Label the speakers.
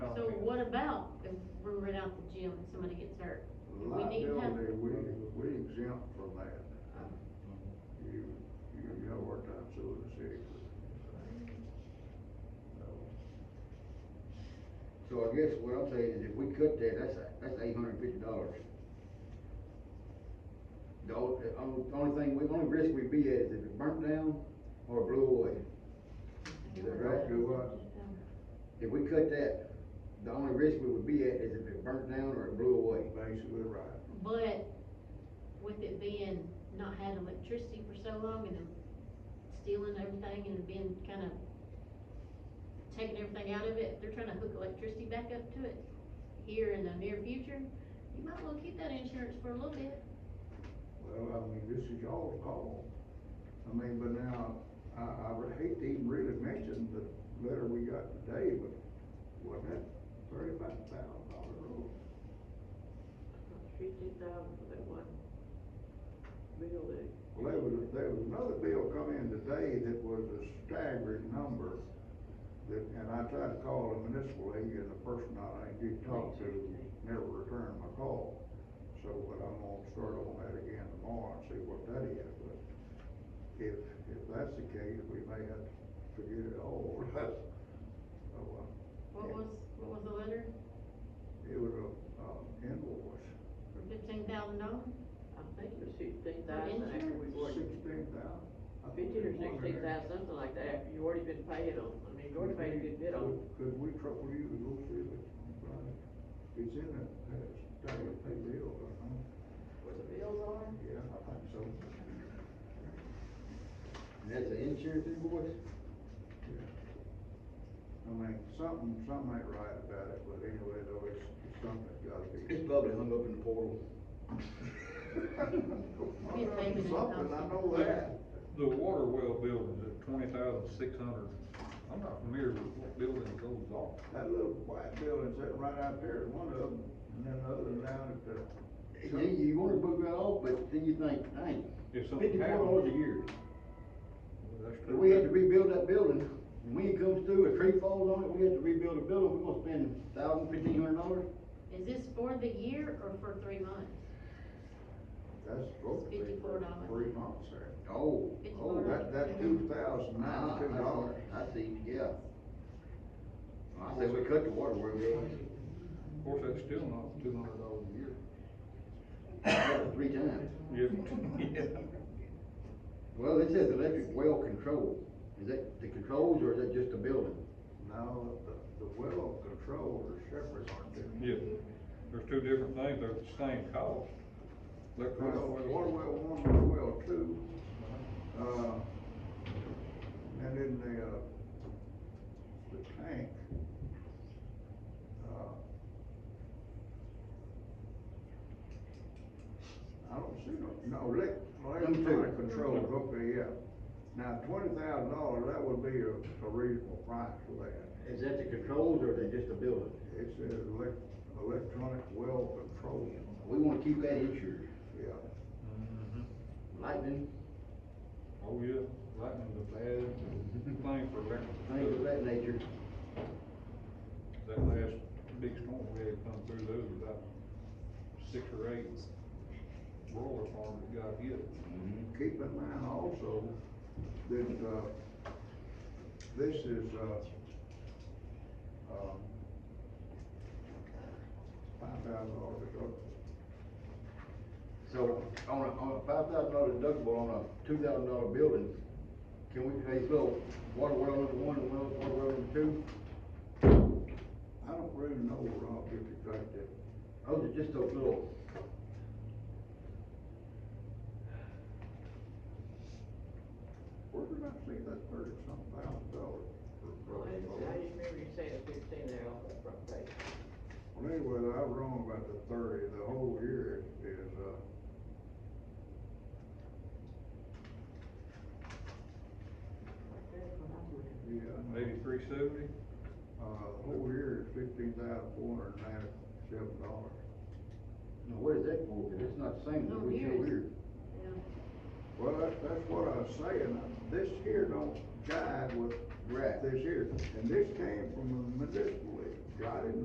Speaker 1: Oh,
Speaker 2: about if we rent out the gym and somebody gets hurt? We need help.
Speaker 3: Liability, we, we exempt from that. You, you know what time so the city.
Speaker 1: So I guess what I'm saying is if we cut that, that's, that's eight hundred and fifty dollars. The only, the only- the only thing, the only risk we'd be at is if it burnt down or blew away. Is that right?
Speaker 3: Do what?
Speaker 1: If we cut that, the only risk we would be at is if it burnt down or it blew away.
Speaker 3: Basically right.
Speaker 2: But with it being not had electricity for so long and them stealing everything and being kind of taking everything out of it, they're trying to hook electricity back up to it here in the near future. You might want to keep that insurance for a little bit.
Speaker 3: Well, I mean, this is y'all's call. I mean, but now, I, I would hate to even really mention the letter we got today, but wasn't that thirty-five thousand dollar rule?
Speaker 4: Fifty thousand for that one building.
Speaker 3: Well, there was, there was another bill come in today that was a staggering number. That, and I tried to call the municipal league and the person I did talk to never returned my call. So, but I'm gonna start on that again tomorrow and see what that is, but if, if that's the case, we may have to forget it all. So, uh,
Speaker 2: What was, what was the letter?
Speaker 3: it was a, um, invoice,
Speaker 2: For fifteen thousand dollars?
Speaker 4: I think it was fifteen thousand after we ordered,
Speaker 3: sixteen thousand.
Speaker 4: fifteen or sixteen thousand, something like that, you already been paid on, I mean, you already paid a good bit on.
Speaker 3: Could- Could we trouble you to go see it, Brian? It's in that, that standard pay bill, I know.
Speaker 4: Where the bills are?
Speaker 3: Yeah, I think so.
Speaker 1: And that's an insurance invoice?
Speaker 3: Yeah. I mean, something, something ain't right about it, but anyway, though, it's, it's something that's gotta be.
Speaker 1: It's probably hung up in the portal.
Speaker 2: payment in
Speaker 3: Something, I know that.
Speaker 5: The water well building's at twenty thousand six hundred, I'm not familiar with what building it goes off.
Speaker 3: That little white building sitting right out there, is one of them, and then the other one down at the.
Speaker 1: You, you wanna book that off, but then you think, dang,
Speaker 5: If something
Speaker 1: fifty-four dollars a
Speaker 5: happens.
Speaker 1: year.
Speaker 5: That's
Speaker 1: If we had to
Speaker 5: true.
Speaker 1: rebuild that building, and when it comes through, a tree falls on it, we have to rebuild the building, we're gonna spend thousand, fifteen hundred dollars?
Speaker 2: Is this for the year or for three months?
Speaker 3: That's supposed to be for
Speaker 2: $54.
Speaker 3: three months there.
Speaker 1: Oh,
Speaker 3: Oh, that, that two thousand nine, two dollars.
Speaker 1: I see, yeah. I say we cut the water where we at,
Speaker 5: Of course, that's still not two hundred dollars a year.
Speaker 1: three times.
Speaker 5: Yeah.
Speaker 1: Well, it says electric well control, is that the controls or is that just the building?
Speaker 3: No, the, the well control are separate, aren't they?
Speaker 5: Yeah, there's two different things, they're the same cost. Electric-
Speaker 3: Well, water well one, water well two, uh, and then the, uh, the tank. uh, I don't see no, no, elec-
Speaker 1: Them two.
Speaker 3: electronic controls, okay, yeah. Now, twenty thousand dollars, that would be a, a reasonable price for that.
Speaker 1: Is that the controls or is that just the building?
Speaker 3: It says elec- electronic well control,
Speaker 1: We wanna keep that insured,
Speaker 3: yeah.
Speaker 5: Mhm.
Speaker 1: lightning,
Speaker 5: Oh, yeah, lightning's a bad thing for electric.
Speaker 1: things of that nature.
Speaker 5: That last big storm we had come through, there was about six or eight broiler farms that got hit.
Speaker 1: Mm-hmm.
Speaker 3: Keep in mind also that, uh, this is, uh, um, five thousand dollars Uh,
Speaker 1: So, on a, on a five thousand dollar deductible on a two thousand dollar building, can we pay little water well number one and well, water well number two?
Speaker 3: I don't really know, Rob, if you think that,
Speaker 1: Those are just those little,
Speaker 3: where did I see that thirty some thousand dollars?
Speaker 4: Well, I didn't- I didn't remember you saying fifteen there on the front page.
Speaker 3: Well, anyway, I was wrong about the thirty, the whole year is, uh,
Speaker 4: That's what I'm looking at.
Speaker 3: yeah. I know.
Speaker 5: Eighty-three seventy?
Speaker 3: Uh, the whole year is fifteen thousand four hundred and ninety-seven dollars.
Speaker 1: now what is that for? It's not the same, as we
Speaker 2: Oh,
Speaker 1: said
Speaker 2: yes.
Speaker 1: we're.
Speaker 2: Yeah.
Speaker 3: Well, that's, that's what I was saying, this here don't jive with
Speaker 1: Right.
Speaker 3: this here, and this came from a municipal league, I didn't